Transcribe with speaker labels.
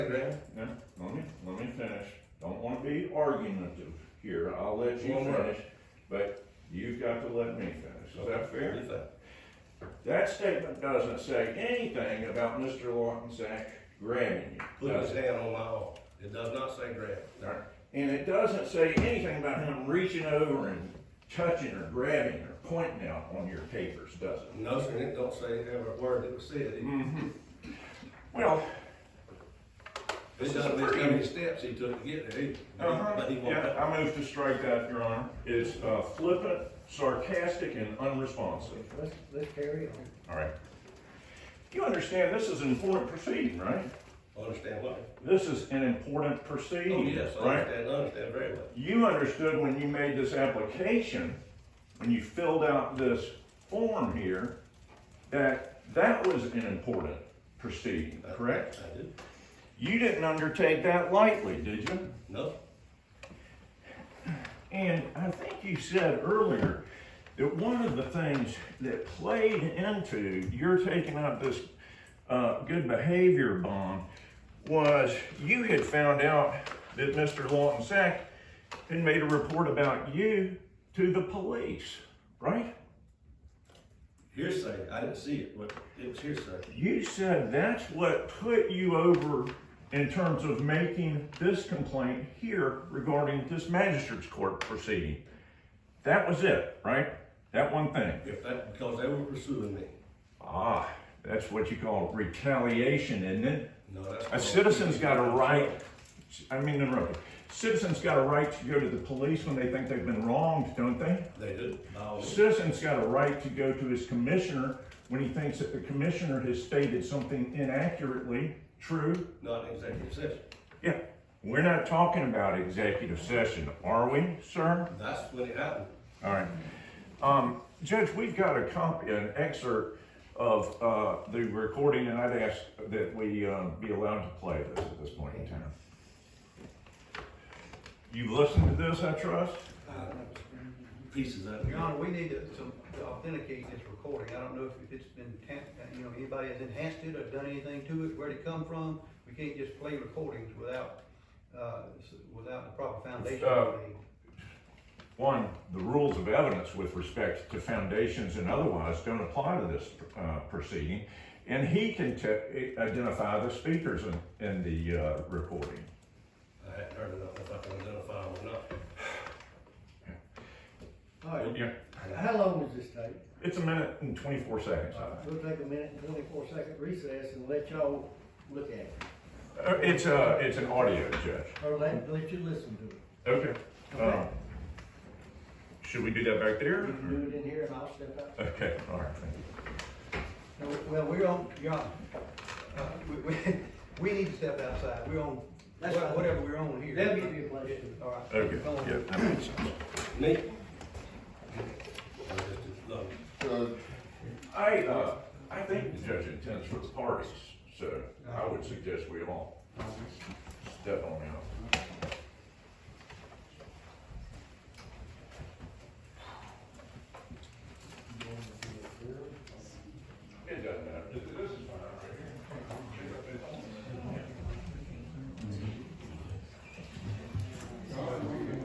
Speaker 1: Yeah,
Speaker 2: No, let me, let me finish. Don't wanna be argumentative here, I'll let you
Speaker 1: One word.
Speaker 2: finish, but you've got to let me finish, is that fair?
Speaker 1: you think?
Speaker 2: That statement doesn't say anything about Mr. Lawton Sack grabbing you,
Speaker 1: Put
Speaker 2: does
Speaker 1: his
Speaker 2: it?
Speaker 1: hand on my arm. It does not say grab.
Speaker 2: All right. And it doesn't say anything about him reaching over and touching or grabbing or pointing out on your papers, does it?
Speaker 1: No, sir, it don't say every word that was said. It-
Speaker 2: Mm. Well,
Speaker 1: It doesn't list how many steps he took to get there either.
Speaker 2: Uh-huh,
Speaker 1: But he won't.
Speaker 2: yeah, I move to strike that, Your Honor. It's uh, flippant, sarcastic, and unresponsive.
Speaker 3: Let's, let's carry on.
Speaker 2: All right. You understand this is an important proceeding, right?
Speaker 1: Understand what?
Speaker 2: This is an important
Speaker 1: Oh,
Speaker 2: proceeding,
Speaker 1: yes, I
Speaker 2: right?
Speaker 1: understand, I understand very well.
Speaker 2: You understood when you made this application, when you filled out this form here, that that was an important proceeding,
Speaker 1: I-
Speaker 2: correct?
Speaker 1: I do.
Speaker 2: You didn't undertake that lightly, did you?
Speaker 1: No,
Speaker 2: And I think you said earlier that one of the things that played into your taking up this uh, good behavior bond was you had found out that Mr. Lawton Sack had made a report about you to the police, right?
Speaker 1: hearsay, I didn't see it, but it was hearsay.
Speaker 2: You said that's what put you over in terms of making this complaint here regarding this magistrate's court proceeding. That was it, right? That one thing.
Speaker 1: If that, because they were pursuing me.
Speaker 2: Ah, that's what you call retaliation, isn't it?
Speaker 1: No, that's.
Speaker 2: A citizen's got a right, I mean, interrupt. Citizens got a right to go to the police when they think they've been wronged, don't they?
Speaker 1: They do. Oh,
Speaker 2: Citizen's got a right to go to his commissioner when he thinks that the commissioner has stated something inaccurately true.
Speaker 1: Not in executive session.
Speaker 2: Yeah, we're not talking about executive session, are we, sir?
Speaker 1: That's when it happened.
Speaker 2: All right. Um, Judge, we've got a copy, an excerpt of, uh, the recording, and I'd ask that we, um, be allowed to play this at this point in time. You've listened to this, I trust?
Speaker 1: Uh, Pieces of it.
Speaker 3: Your Honor, we need to some- to authenticate this recording. I don't know if it's been, ta- uh, you know, anybody has enhanced it or done anything to it, where it come from. We can't just play recordings without, uh, s- without the proper foundation.
Speaker 2: Uh, One, the rules of evidence with respect to foundations and otherwise don't apply to this, uh, proceeding. And he can te- identify the speakers in, in the, uh, recording.
Speaker 1: I hadn't heard enough if I can identify them or not.
Speaker 3: All right,
Speaker 2: Yeah.
Speaker 3: how long does this take?
Speaker 2: It's a minute and twenty-four seconds.
Speaker 3: We'll take a minute and twenty-four second recess and let y'all look at it,
Speaker 2: Uh, It's a, it's an audio, Judge.
Speaker 3: or let, let you listen to it.
Speaker 2: Okay. Um, Should we do that back there?
Speaker 3: You can do it in here and I'll step out.
Speaker 2: Okay, all right, thank you.
Speaker 3: No, Well, we're on, Your Honor, uh, we, we, we need to step outside. We're on,
Speaker 4: That's fine.
Speaker 3: whatever we're on here.
Speaker 4: They'll give you a place to-
Speaker 3: All right. Go on.
Speaker 2: Okay, yeah, that makes sense.
Speaker 1: Me? I just did- no.
Speaker 2: I, uh, I think the judge intends for the parties, so I would suggest we all step on out.